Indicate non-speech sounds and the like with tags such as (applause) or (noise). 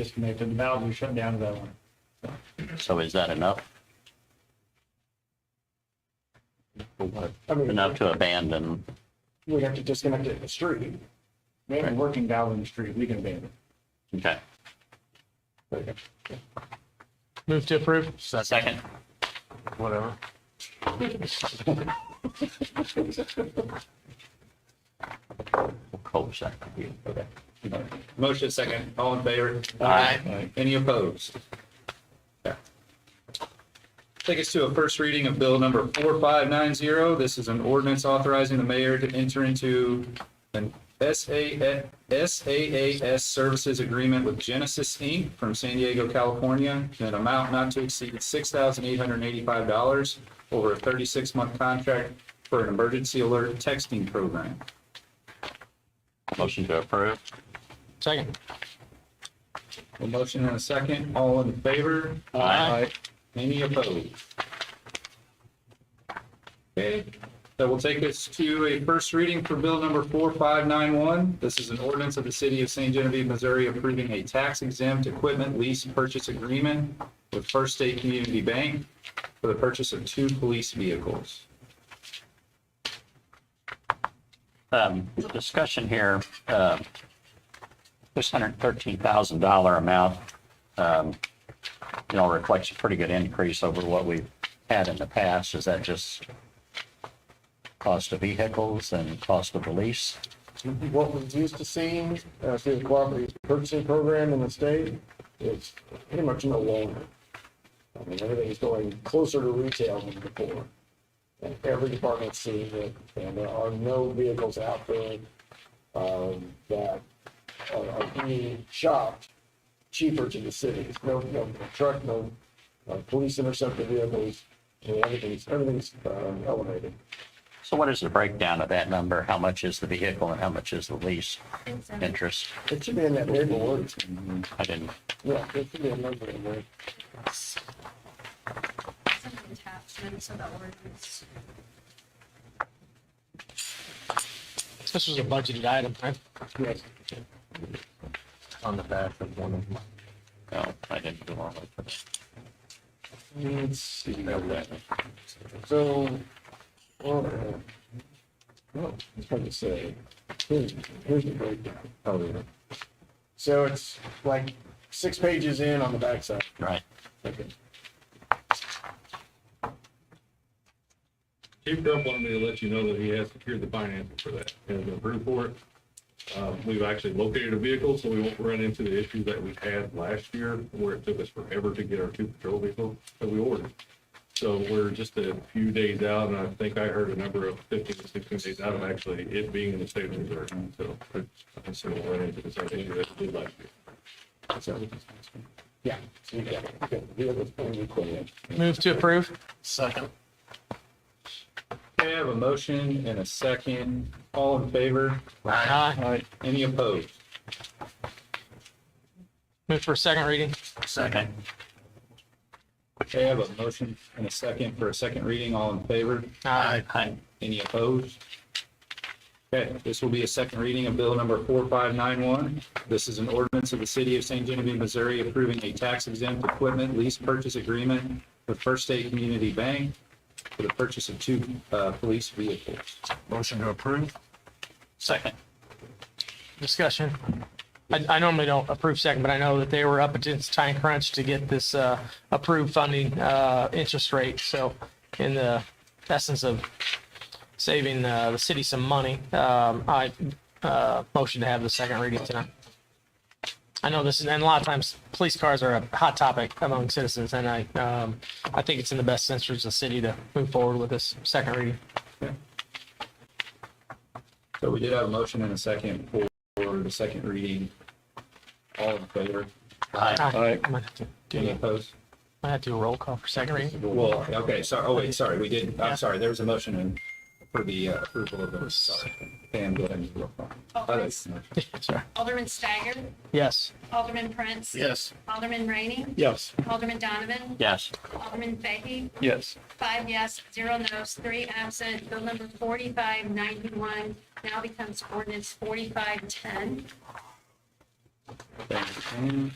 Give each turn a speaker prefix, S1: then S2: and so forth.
S1: disconnected, the valves are shut down to that one.
S2: So is that enough?
S1: I mean,
S2: Enough to abandon?
S1: We have to disconnect it in the street. We have a working valve in the street, we can abandon
S2: Okay.
S1: it.
S3: Move to approve.
S2: Second?
S3: Whatever.
S2: Cold second.
S4: Motion second, all in favor?
S2: Aye.
S4: Any opposed? Okay. Take us to a first reading of bill number 4590. This is an ordinance authorizing the mayor to enter into an SAA SaaS services agreement with Genesis Inc. from San Diego, California, in an amount not to exceed $6,885 over a 36-month contract for an emergency alert texting program.
S2: Motion to approve?
S3: Second.
S4: A motion and a second, all in favor?
S2: Aye.
S4: Any opposed? Okay, that will take us to a first reading for bill number 4591. This is an ordinance of the city of St. Genevieve, Missouri approving a tax exempt equipment lease purchase agreement with First State Community Bank for the purchase of two police vehicles.
S2: Um, discussion here, uh, this hundred thirteen thousand dollar amount, um, you know, reflects a pretty good increase over what we've had in the past. Is that just cost of vehicles and cost of the lease?
S1: What we've used to seeing, uh, through the cooperative purchasing program in the state, it's pretty much no longer. I mean, everything's going closer to retail than before. And every department's seeing it, and there are no vehicles out there, um, that are, are being shopped cheaper to the cities. No, no truck, no, uh, police interceptor vehicles, and everything's, everything's, um, elevated.
S2: So what is the breakdown of that number? How much is the vehicle and how much is the lease interest?
S1: It should be in that neighborhood.
S2: I didn't,
S1: Yeah, it should be a number in there.
S5: Some attachments of the ordinance.
S3: This was a budgeted item, right?
S1: Yes.
S3: On the back of one of them.
S2: no, I didn't do all of it.
S1: Let's see. So, well, uh, well, it's hard to say. Here's, here's the breakdown. Oh, yeah. So it's like six pages in on the backside.
S2: Right.
S1: Okay.
S6: Chief Grubb wanted me to let you know that he has secured the financing for that and been approved for it. Uh, We've actually located a vehicle, so we won't run into the issues that we had last year where it took us forever to get our two patrol vehicles that we ordered. So we're just a few days out, and I think I heard a number of 15 to 16 days out of actually it being in the state of Missouri. So I'm sure we'll run into the same issue that we did last year.
S1: So- Yeah. so you got it. Okay, the other thing we put in.
S3: Move to approve.
S1: Second.
S4: Okay, I have a motion and a second, all in favor?
S3: Aye.
S4: Any opposed?
S3: Move for a second reading.
S2: Second.
S4: Okay, I have a motion and a second for a second reading, all in favor?
S3: Aye.
S2: Aye.
S4: Any opposed? Okay, this will be a second reading of bill number 4591. This is an ordinance of the city of St. Genevieve, Missouri approving a tax exempt equipment lease purchase agreement with First State Community Bank for the purchase of two uh, police vehicles.
S2: Second.
S3: Discussion. I, I normally don't approve second, but I know that they were up against time crunch to get this, uh, approved funding, uh, interest rate. So in the essence of saving, uh, the city some money, um, I, uh, motion to have the second reading tonight. I know this is, and a lot of times police cars are a hot topic among citizens and I, um, I think it's in the best interest of the city to move forward with this second reading.
S4: So we did have a motion and a second for the second reading. All in favor?
S2: Aye.
S3: I might have to do,
S4: Any
S3: I
S4: opposed?
S3: might have to do a roll call for second reading. (laughs)
S4: Well, okay, sorry, oh wait, sorry, we did,
S3: Yeah.
S4: I'm sorry, there was a motion and for the uh, approval of those, sorry. Pam, go ahead and roll call. Other-
S5: Alderman-
S3: Sorry.
S5: Alderman Steiger,
S3: Yes.
S5: Alderman Prince.
S1: Yes.
S5: Alderman Rainey,
S1: Yes.
S5: Alderman Donovan,
S2: Yes.
S5: Alderman Fahey,
S1: Yes.
S5: five yes, zero no's, three absent. Bill number 4591 now becomes ordinance 4510.
S4: Okay,